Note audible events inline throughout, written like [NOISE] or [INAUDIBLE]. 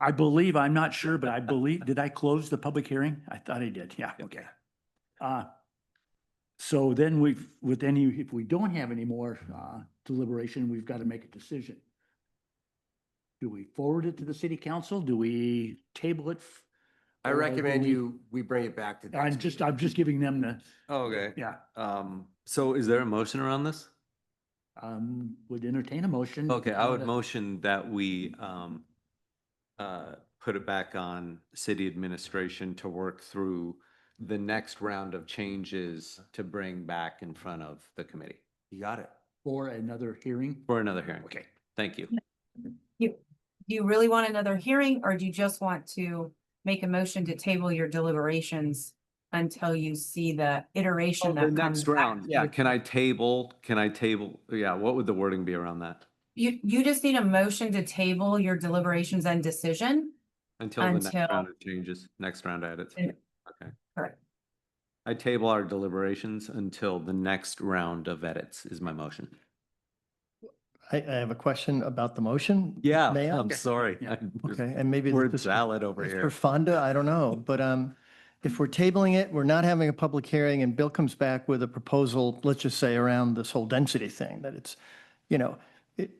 I believe, I'm not sure, but I believe, did I close the public hearing? I thought I did, yeah, Yeah. okay. Uh, So then we've, with any, if we don't have any more uh, deliberation, we've got to make a decision. Do we forward it to the city council? Do we table it? f- I or will recommend we- you, we bring it back to. next I'm just, meeting. I'm just giving them the, Okay, yeah, um, so is there a motion around this? um, would entertain a motion. Okay, I would Uh, motion that we, um, uh, put it back on city administration to work through the next round of changes to bring back in front of the committee You got it. For another hearing. for another hearing. Okay. Thank you. Do you really want another hearing or do you just want to make a motion to table your deliberations until you see the iteration Oh, The that comes next back? round, yeah, can I table, can I table, yeah, what would the wording be around that? You, you just need a motion to table your deliberations and decision. Until the next Until- round of changes, next round edits. Yeah. Okay. Correct. I table our deliberations until the next round of edits is my motion. I, I have a question about the motion. Yeah, May I? I'm sorry. Yeah. I'm just- Okay, and maybe. We're this is- valid over it's here. For Fonda, I don't know, but, um, if we're tabling it, we're not having a public hearing and Bill comes back with a proposal, let's just say around this whole density thing, that it's, you know, it,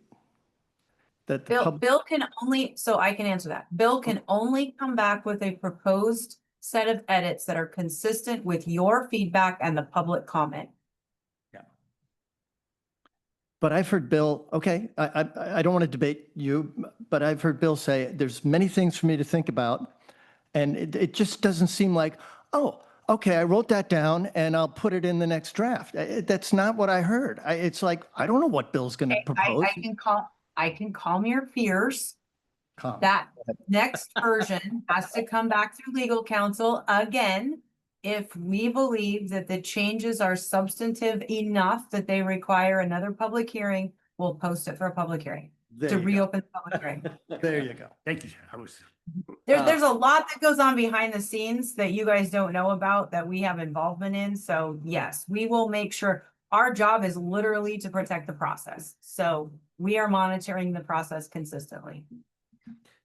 that the Bill, public, Bill can only, so I can answer that. Bill can only come back with a proposed set of edits that are consistent with your feedback and the public comment. but I've heard Bill, okay, I, I, I don't want to debate you, but I've heard Bill say, there's many things for me to think about. And it, it just doesn't seem like, oh, okay, I wrote that down and I'll put it in the next draft. Uh, That's not what I heard. I, it's like, I don't know what Bill's going to I, propose. I can call, I can calm your fears. Calm. That next version has to come back through legal counsel again. If we believe that the changes are substantive enough that they require another public hearing, we'll post it for a public hearing, There to you go. reopen the public [LAUGHS] hearing. There you go. Thank you. I was, There, Uh, there's a lot that goes on behind the scenes that you guys don't know about that we have involvement in. So yes, we will make sure. Our job is literally to protect the process. So we are monitoring the process consistently.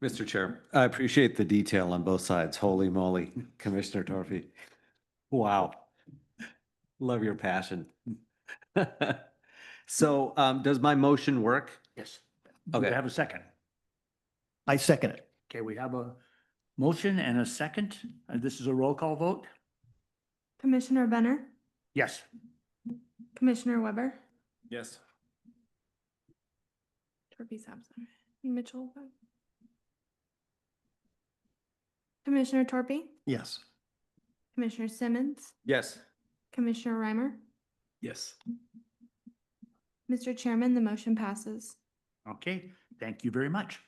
Mr. Chair, I appreciate the detail on both sides. Holy moly, Commissioner Torphy. Wow. Love your passion. [LAUGHS] So um, does my motion work? yes. Do Okay. I have a second? I second it. Okay, we have a motion and a second. Uh, This is a roll call vote? Commissioner Benner, Yes. Commissioner Weber, Yes. Torpy absent, Mitchell. Commissioner Torpy, Yes. Commissioner Simmons, Yes. Commissioner Reimer. Yes. Mr. Chairman, the motion passes. Okay, thank you very much.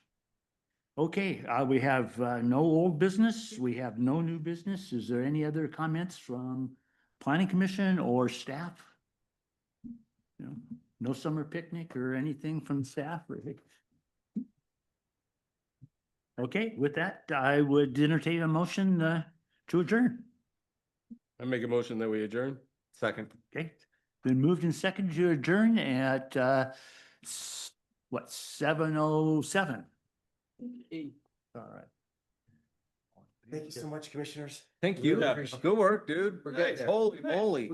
Okay, uh, we have uh, no old business. We have no new business. Is there any other comments from planning commission or staff? You know, No summer picnic or anything from staff? really? Okay, with that, I would entertain a motion uh, to adjourn. I make a motion that we adjourn. Second. Okay, been moved and seconded to adjourn at, uh, s- what, seven oh seven? All right. Thank you so much, commissioners. Thank Really you. appreciate- Good work, dude. We're getting Nice. there. Holy moly.